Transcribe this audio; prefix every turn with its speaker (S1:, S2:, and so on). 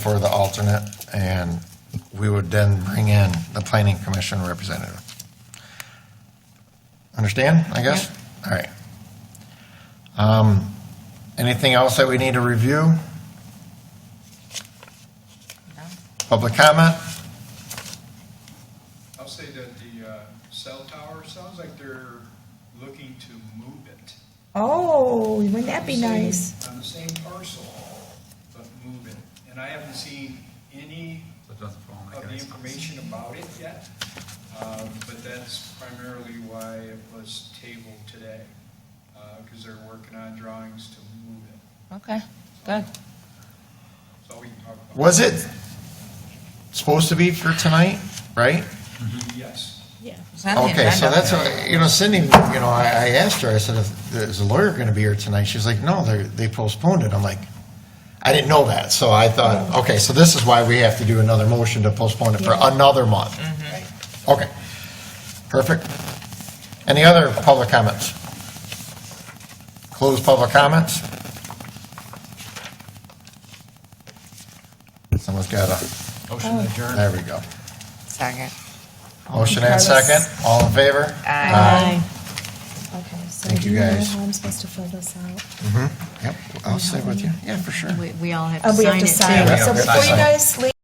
S1: for the alternate, and we would then bring in the planning commission representative. Understand, I guess? All right. Um, Anything else that we need to review? Public comment?
S2: I'll say that the uh, cell tower, sounds like they're looking to move it.
S3: Oh, wouldn't that be
S2: On the same-
S3: nice?
S2: On the same parcel, but move it. And I haven't seen any
S4: That doesn't fall in that
S2: of the
S4: guy's-
S2: information about it yet, um, but that's primarily why it was tabled today, because they're working on drawings to move it.
S5: Okay, good.
S2: That's all we can talk about.
S1: Was it supposed to be for tonight, right?
S2: Yes.
S5: It's not the
S1: Okay, so
S5: agenda.
S1: that's, what- you know, Cindy, you know, I, I asked her, I said, "Is- is the lawyer going to be here tonight? She's like, no, they, they postponed it. I'm like, I didn't know that, so I thought, okay, so this is why we have to do another motion to postpone it for
S3: Yeah.
S1: another month. Okay, perfect. Any other public comments? Closed public comments? Someone's got a,
S4: Motion to adjourn.
S1: there we go.
S5: Second.
S1: Motion and second, all in favor?
S3: Uh,
S5: Aye.
S3: Okay, so
S1: Uh, Thank
S3: do
S1: you
S3: you know
S1: guys.
S3: how I'm supposed to fill this out?
S1: Yep, I'll stay with you. Yeah, for sure.
S6: We, we all have to
S3: Oh, we
S6: sign
S3: have
S6: it
S3: to
S6: too.
S3: sign it. So before you guys leave.